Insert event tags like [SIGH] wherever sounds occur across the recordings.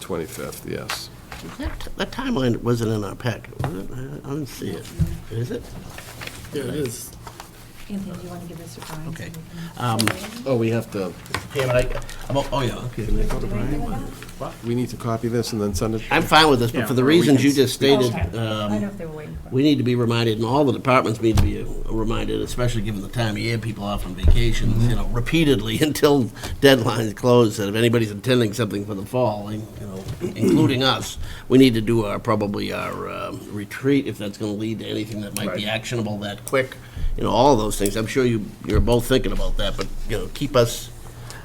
25th, yes. That that timeline wasn't in our packet, was it? I I didn't see it. Is it? There it is. Anthony, do you want to give us a Brian? Okay. Uh, Um. Oh, we have to, Yeah, but I, I'm, oh, yeah, okay. Can I go to Brian? we need to copy this and then send it? I'm fine with this, but for the Yeah, we reasons you can- just stated, I don't know um, if they were waiting for. we need to be reminded, and all the departments need to be reminded, especially given the time of year, people are off on Mm-hmm. vacations, you know, repeatedly [LAUGHS] until deadlines close, that if anybody's intending something for the fall, you know, [CLEARS THROAT] including us, we need to do our, probably our um, retreat, if that's gonna lead to anything that might be actionable that quick, you know, all of those things. I'm sure you, you're both thinking about that, but, you know, keep us,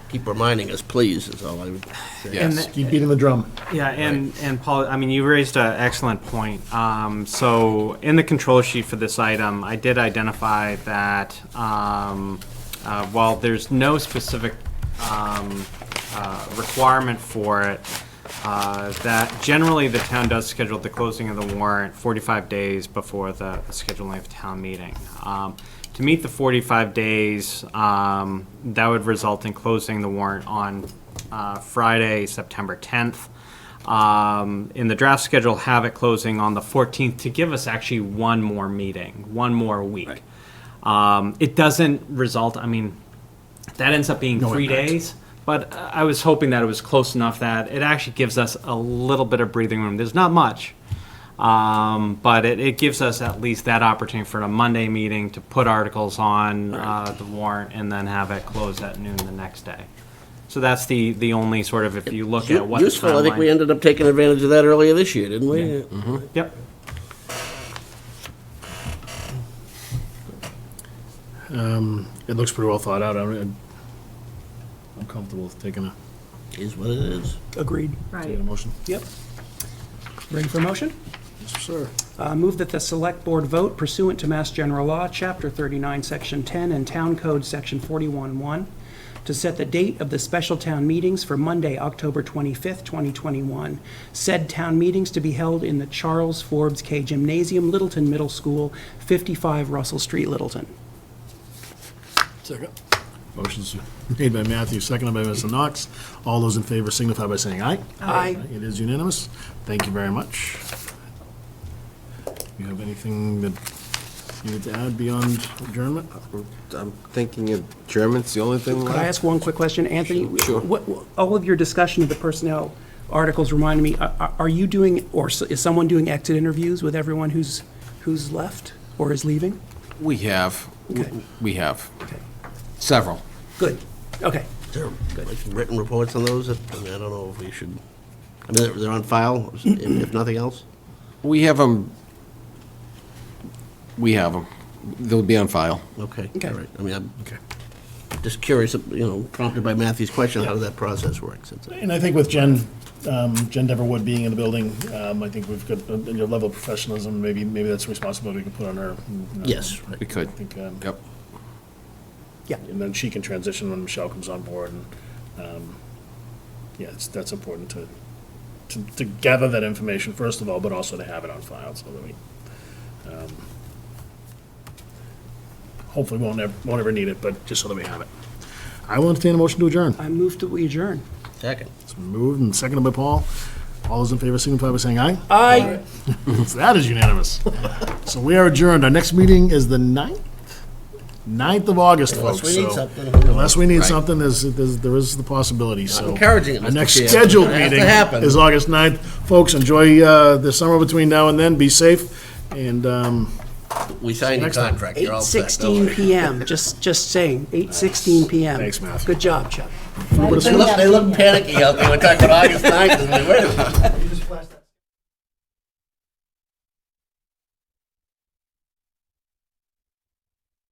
keep reminding us, please, is all I would say. Yes. And- Keep beating the drum. Yeah, and, and Paul, I mean, you raised an excellent point. Um, so in the control sheet for this item, I did identify that, um, uh, while there's no specific, um, uh, requirement for it, uh, that generally the town does schedule the closing of the warrant forty-five days before the scheduling of town meeting. Um, to meet the forty-five days, um, that would result in closing the warrant on, uh, Friday, September tenth um, in the draft schedule, have it closing on the 14th to give us actually one more meeting, one more week. Um, it doesn't result, I mean, that ends up being three days, but I was hoping that it was close enough that it actually gives us a little bit of breathing room. There's not much, um, but it, it gives us at least that opportunity for a Monday meeting to put articles on uh, the warrant and then have it close at noon the next day. So that's the, the only sort of, if you look at what. the Useful, I think we timeline- ended up taking advantage of that earlier this year, didn't we? Yep. It looks pretty well thought out. I'm I'm comfortable with taking a, Is what it is. Agreed. taking a motion. Yep. Ready for motion? Sir. Uh, Move that the Select Board vote pursuant to Mass General Law, Chapter 39, Section 10, and Town Code, Section 41-1, to set the date of the special town meetings for Monday, October 25th, 2021. Said town meetings to be held in the Charles Forbes K Gymnasium, Littleton Middle School, 55 Russell Street, Littleton. Second. Motion's made by Matthew, seconded by Mr. Knox. All those in favor signify by saying aye. Aye. It is unanimous. Thank you very much. You have anything that you need to add beyond adjournment? I'm thinking of German's the only thing Could I left. ask one quick question, Anthony? Sure. What- what- All of your discussion of the personnel articles reminded me, are- are are you doing, or s- is someone doing exit interviews with everyone who's, who's left or is leaving? We have, Okay. we have several. Good, okay. Sure. Like Written reports on those, I mean, I don't know if we should, I mean, they're- they're on file, if- if nothing else? We have them, we have them. They'll be on file. Okay. Okay. all right. I mean, I'm Okay. just curious, you know, prompted by Matthew's question, how does that process work? Since it- And I think with Jen, um, Jen Deverwood being in the building, um, I think we've got a a level of professionalism, maybe, maybe that's a responsibility we can put on her. you know. Yes. We could. I think, um, Yep. and then she can transition when Michelle comes on board, and, um, yeah, it's, that's important to, to, to gather that information, first of all, but also to have it on file, so that we, um, hopefully won't ever, won't ever need it, but just so that we have it. I will entertain a motion to adjourn. I move that we adjourn. Second. It's been moved and seconded by Paul. All those in favor signify by saying aye. Aye. So [LAUGHS] That is unanimous. So we are adjourned. Our next meeting is the 9th, 9th of August, Unless folks. we need so- something, who knows? Unless we need Right. something, there's, there's- there is the possibility, so. encouraging it, Our Mr. next Chair. scheduled It has to meeting happen. is August 9th. Folks, enjoy uh, the summer between now and then. Be safe. And um, We signed a Next time. contract, you're all set. don't 8:16 worry. PM, just, just saying, 8:16 PM. Thanks, Matthew. Good job, Chuck. They look, they look panicky out there, we're talking about August 9th, and we, wait a minute.